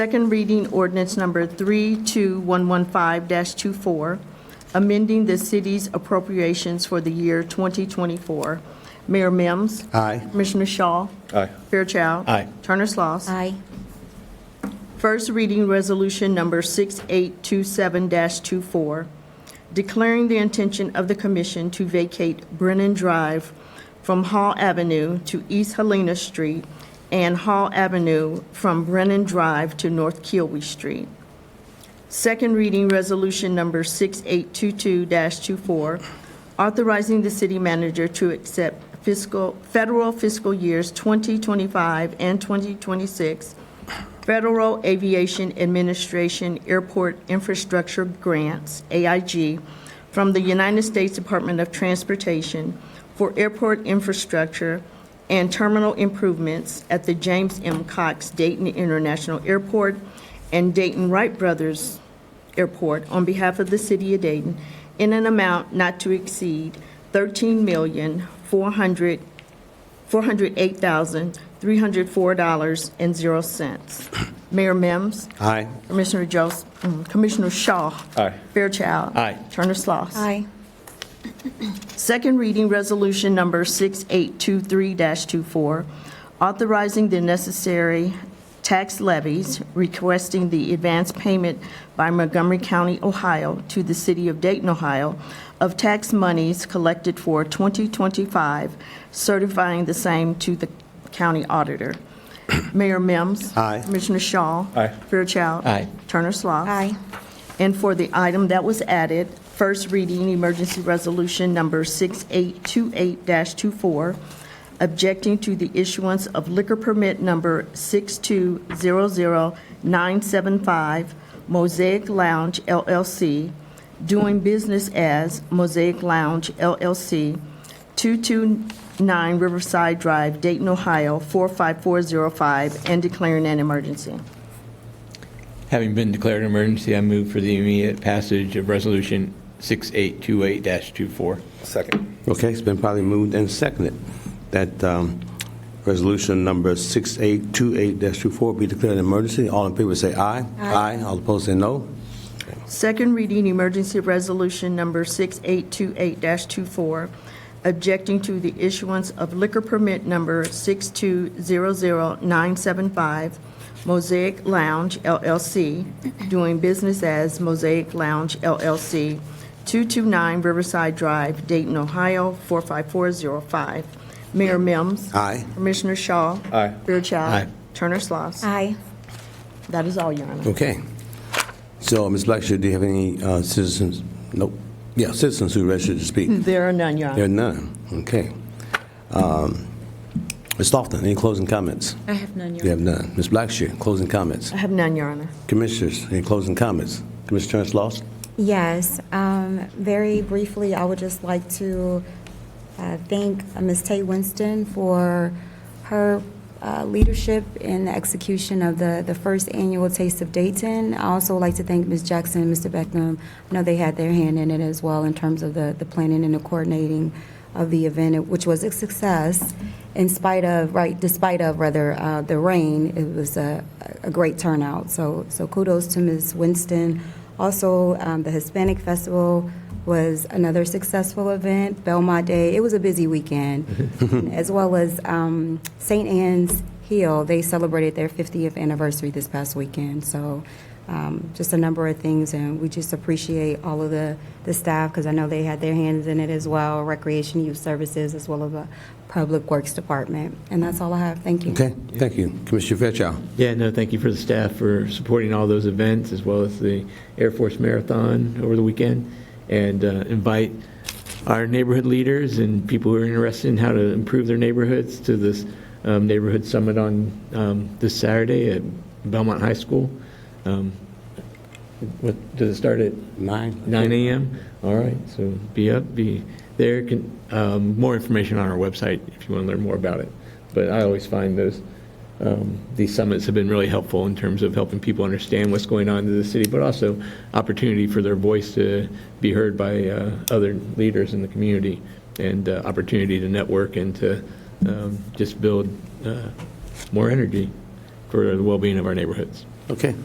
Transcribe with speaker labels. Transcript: Speaker 1: Second reading ordinance number 32115-24, amending the city's appropriations for the year 2024. Mayor Mims.
Speaker 2: Aye.
Speaker 1: Commissioner Shaw.
Speaker 2: Aye.
Speaker 1: Fairchild.
Speaker 2: Aye.
Speaker 1: Turner Sloss.
Speaker 3: Aye.
Speaker 1: First reading resolution number 6827-24, declaring the intention of the commission to vacate Brennan Drive from Hall Avenue to East Helena Street and Hall Avenue from Brennan Drive to North Kiowee Street. Second reading resolution number 6822-24, authorizing the city manager to accept fiscal, federal fiscal years 2025 and 2026 Federal Aviation Administration Airport Infrastructure Grants, AIG, from the United States Department of Transportation for airport infrastructure and terminal improvements at the James M. Cox Dayton International Airport and Dayton Wright Brothers Airport on behalf of the City of Dayton in an amount not to exceed $13,400,000 $408,304.00. Mayor Mims.
Speaker 2: Aye.
Speaker 1: Commissioner Jos, mm, Commissioner Shaw.
Speaker 2: Aye.
Speaker 1: Fairchild.
Speaker 2: Aye.
Speaker 1: Turner Sloss.
Speaker 3: Aye.
Speaker 1: Second reading resolution number 6823-24, authorizing the necessary tax levies, requesting the advance payment by Montgomery County, Ohio, to the city of Dayton, Ohio, of tax monies collected for 2025, certifying the same to the county auditor. Mayor Mims.
Speaker 2: Aye.
Speaker 1: Commissioner Shaw.
Speaker 2: Aye.
Speaker 1: Fairchild.
Speaker 2: Aye.
Speaker 1: Turner Sloss.
Speaker 3: Aye.
Speaker 1: And for the item that was added, first reading, emergency resolution number 6828-24, objecting to the issuance of liquor permit number 6200975, Mosaic Lounge LLC, doing business as Mosaic Lounge LLC, 229 Riverside Drive, Dayton, Ohio, 45405, and declaring an emergency.
Speaker 4: Having been declared an emergency, I move for the immediate passage of Resolution 6828-24.
Speaker 2: Second.
Speaker 5: Okay, it's been probably moved and seconded that um, resolution number 6828-24 be declared an emergency. All in favor say aye. Aye. All opposed say no.
Speaker 1: Second reading, emergency resolution number 6828-24, objecting to the issuance of liquor permit number 6200975, Mosaic Lounge LLC, doing business as Mosaic Lounge LLC, 229 Riverside Drive, Dayton, Ohio, 45405. Mayor Mims.
Speaker 5: Aye.
Speaker 1: Commissioner Shaw.
Speaker 2: Aye.
Speaker 1: Fairchild.
Speaker 4: Aye.
Speaker 1: Turner Sloss.
Speaker 3: Aye.
Speaker 1: That is all, Your Honor.
Speaker 5: Okay. So, Ms. Blackshear, do you have any uh, citizens? Nope. Yeah, citizens who registered to speak.
Speaker 3: Hmm.
Speaker 1: There are none, Your Honor.
Speaker 5: There are none. Okay. Um, Ms. Lofton, any closing comments?
Speaker 3: I have none, Your
Speaker 5: You have none. Ms. Blackshear, closing comments.
Speaker 1: I have none, Your Honor.
Speaker 5: Commissioners, any closing comments? Commissioner Terrence Lawson?
Speaker 3: Yes, um, very briefly, I would just like to uh, thank uh, Ms. Tay Winston for her uh, leadership in the execution of the, the first annual Taste of Dayton. I also like to thank Ms. Jackson and Mr. Beckman. I know they had their hand in it as well in terms of the, the planning and the coordinating of the event, which was a success in spite of, right, despite of rather, uh, the rain. It was a, a great turnout. So, so kudos to Ms. Winston. Also, um, the Hispanic Festival was another successful event. Belmont Day, it was a busy weekend, as well as um, St. Anne's Hill. They celebrated their 50th anniversary this past weekend. So, um, just a number of things, and we just appreciate all of the, the staff because I know they had their hands in it as well. Recreation Youth Services, as well as the Public Works Department, and that's all I have. Thank you.
Speaker 5: Okay, thank you. Commissioner Fairchild?
Speaker 4: Yeah, no, thank you for the staff for supporting all those events, as well as the Air Force Marathon over the weekend, and uh, invite our neighborhood leaders and people who are interested in how to improve their neighborhoods to this um, neighborhood summit on um, this Saturday at Belmont High School. Um, What, does it start at
Speaker 5: Nine.
Speaker 4: 9 a.m.? All right, so be up, be there. Can- um, More information on our website if you want to learn more about it. But I always find those, um, these summits have been really helpful in terms of helping people understand what's going on in the city, but also opportunity for their voice to be heard by uh, other leaders in the community and uh, opportunity to network and to um, just build uh, more energy for the well-being of our neighborhoods.
Speaker 5: Okay.